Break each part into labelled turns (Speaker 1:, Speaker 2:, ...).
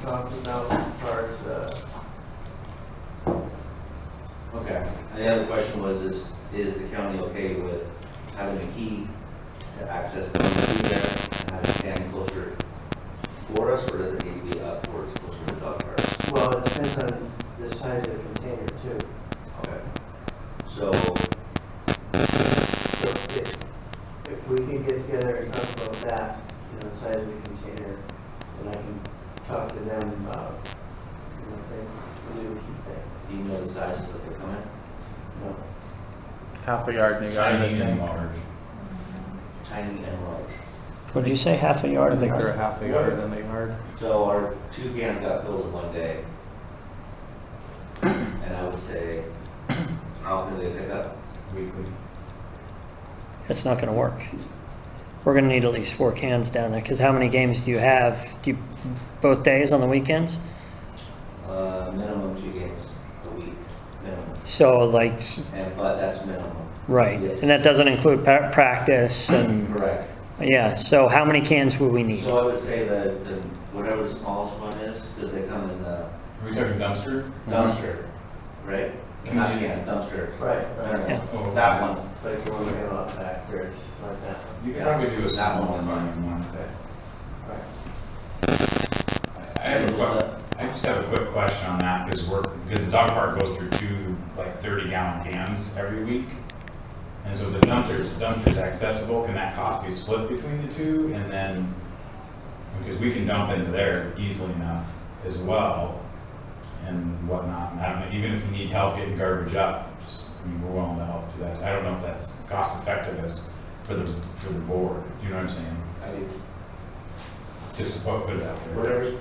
Speaker 1: talked about as far as, uh,
Speaker 2: Okay, and the other question was, is, is the county okay with having a key to access through there and having Dan closer for us, or does it need to be up towards closer to the dog park?
Speaker 1: well, it depends on the size of the container too.
Speaker 2: Okay. So,
Speaker 1: So if, if we can get together and talk about that, you know, size of the container, then I can talk to them about, you know, if they, we do keep that,
Speaker 2: do you know the sizes that they're coming?
Speaker 1: no.
Speaker 3: Half a yard and a yard, I
Speaker 4: Tiny and
Speaker 3: think.
Speaker 4: large.
Speaker 2: Tiny and large.
Speaker 5: Would you say half a yard?
Speaker 3: I think they're a half a yard and a yard.
Speaker 2: So our two cans got filled in one day. And I would say, how often do they pick up? Weekly.
Speaker 5: That's not gonna work. We're gonna need at least four cans down there, because how many games do you have? Do you, both days on the weekends?
Speaker 2: Uh, minimum two games a week, minimum.
Speaker 5: So like, s-
Speaker 2: And, but that's minimum.
Speaker 5: right, and that doesn't include pa- practice and,
Speaker 2: Correct.
Speaker 5: yeah, so how many cans would we need?
Speaker 2: So I would say that the, whatever the smallest one is, because they come in the
Speaker 4: Are we talking dumpster?
Speaker 5: Mm-hmm.
Speaker 2: dumpster, right? Not can, dumpster.
Speaker 1: Right,
Speaker 2: I don't
Speaker 1: right.
Speaker 5: Yeah.
Speaker 2: know, Oh, that one.
Speaker 1: But if you want to get out back, there's like that,
Speaker 4: You could probably do a small one, mine, one.
Speaker 1: right?
Speaker 4: I have a que, I just have a quick question on that, because we're, because the dog park goes through two, like thirty gallon cans every week. And so the dumpsters, dumpsters accessible, can that cost be split between the two, and then, because we can dump into there easily enough as well, and whatnot, and I don't know, even if you need help getting garbage up, just, I mean, we're willing to help do that, I don't know if that's cost effective as, for the, for the board, you know what I'm saying?
Speaker 2: I mean,
Speaker 4: Just to put put it out there.
Speaker 2: whatever's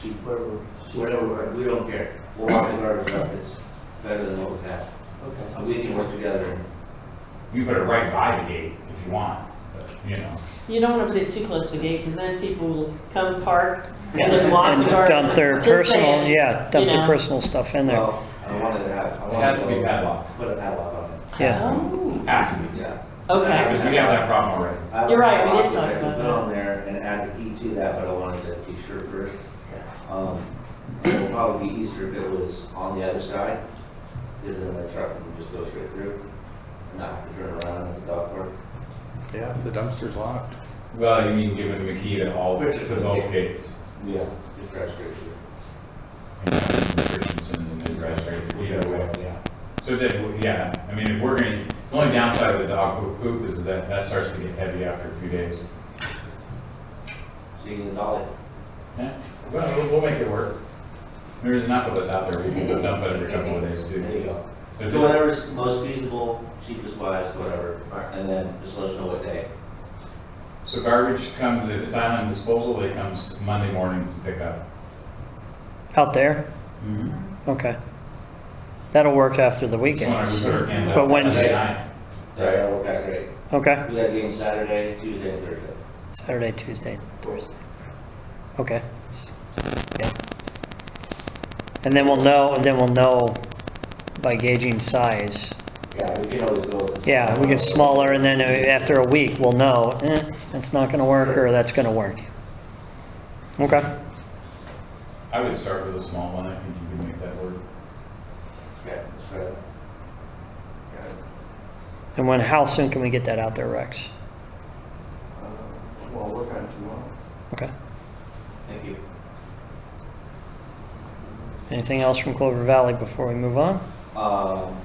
Speaker 2: cheap,
Speaker 1: Whatever,
Speaker 2: whatever, works, we don't care. We'll walk the garbage up, it's better than what we have.
Speaker 1: okay.
Speaker 2: And we can work together.
Speaker 4: You can put it right by the gate if you want, but, you know.
Speaker 6: You don't want to put it too close to the gate, because then people will come park and then walk
Speaker 5: And
Speaker 6: the garden.
Speaker 5: dump their
Speaker 6: Just
Speaker 5: personal,
Speaker 6: saying,
Speaker 5: yeah, dump
Speaker 6: you
Speaker 5: their
Speaker 6: know.
Speaker 5: personal stuff in there.
Speaker 2: Well, I wanted to have, I
Speaker 4: It
Speaker 2: wanted to.
Speaker 4: has to be padlocked.
Speaker 2: Put a padlock on it.
Speaker 5: Yeah,
Speaker 6: Oh,
Speaker 4: Has to be.
Speaker 2: Yeah.
Speaker 6: okay.
Speaker 4: Because we have that problem already.
Speaker 2: I would
Speaker 6: You're right, we did
Speaker 2: padlock it, I
Speaker 6: talk
Speaker 2: could
Speaker 6: about
Speaker 2: Put
Speaker 6: that.
Speaker 2: on there and add the key to that, but I wanted to be sure first. Um, it would probably be easier if it was on the other side, because then the truck can just go straight through, and not have to turn around at the dog park.
Speaker 3: Yeah, the dumpster's locked.
Speaker 4: Well, you mean giving the key to all, to both gates.
Speaker 2: Yeah. Just drive straight through.
Speaker 4: And having restrictions and then drive straight through either way.
Speaker 2: Yeah.
Speaker 4: So that, yeah, I mean, if we're gonna, the only downside of the dog poop- poop is that that starts to get heavy after a few days.
Speaker 2: So you can dolly.
Speaker 4: Yeah, well, we'll- we'll make it work. There's enough of us out there, we can dump it every couple of days too.
Speaker 2: There you go.
Speaker 4: But
Speaker 2: Do
Speaker 4: it's-
Speaker 2: whatever's most feasible, cheapest wise, whatever, and then just let us know what day.
Speaker 4: So garbage comes, if it's island disposal, it comes Monday mornings to pick up.
Speaker 5: out there, Hmm. okay. That'll work after the
Speaker 4: Just wanna- we
Speaker 5: weekends,
Speaker 4: put our hands out
Speaker 5: But Wednesday-
Speaker 4: Sunday night.
Speaker 2: That worked out great.
Speaker 5: okay?
Speaker 2: We had game Saturday, Tuesday, and Thursday.
Speaker 5: Saturday, Tuesday, Thursday. Okay. S- Yeah. And then we'll know, and then we'll know by gauging size.
Speaker 2: Yeah, we can always go. with-
Speaker 5: Yeah, we get smaller and then uh, after a week, we'll know, eh, that's not gonna work or that's gonna work. Okay,
Speaker 4: I would start with a small one, I think you can make that work.
Speaker 2: Okay, let's try that.
Speaker 5: and when, how soon can we get that out there, Rex?
Speaker 1: Uh, Well, work on it tomorrow.
Speaker 5: Okay,
Speaker 2: Thank you.
Speaker 5: anything else from Clover Valley before we move on?
Speaker 2: Um,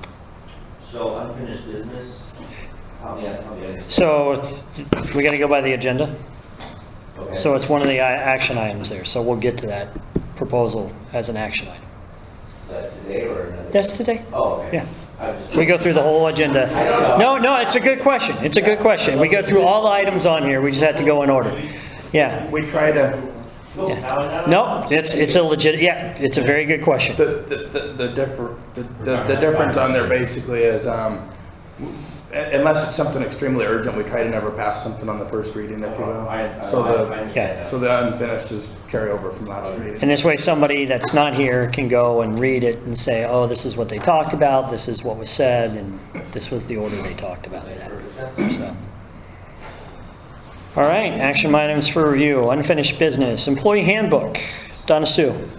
Speaker 2: so unfinished business, help me out, help me out.
Speaker 5: So, we gotta go by the agenda,
Speaker 2: Okay.
Speaker 5: so it's one of the i- action items there, so we'll get to that proposal as an action item.
Speaker 2: Uh, today or another?
Speaker 5: That's today?
Speaker 2: Oh, okay.
Speaker 5: Yeah.
Speaker 2: I just-
Speaker 5: We go through the whole agenda.
Speaker 2: I don't
Speaker 5: No,
Speaker 2: know.
Speaker 5: no, it's a good question. It's a good question. We go through all the items on here. We just have to go in order. Yeah.
Speaker 3: We try to,
Speaker 2: Cool.
Speaker 5: yeah.
Speaker 2: Oh, Now I know.
Speaker 5: No, it's, it's a legit, yeah, it's a very good question.
Speaker 3: the, the, the- the differ, the, the the difference on there basically is, um, w- unless it's something extremely urgent, we try to never pass something on the first reading, if you will.
Speaker 2: I, Oh, I,
Speaker 3: So
Speaker 2: I I Oh,
Speaker 3: the,
Speaker 2: understand
Speaker 5: yeah,
Speaker 2: that.
Speaker 3: so the unfinished is carryover from last reading.
Speaker 5: And this way, somebody that's not here can go and read it and say, oh, this is what they talked about, this is what was said, and this was the order they talked about it
Speaker 2: Makes
Speaker 5: in.
Speaker 2: perfect sense.
Speaker 5: So. All right, action items for review, unfinished business, employee handbook. Donna Sue.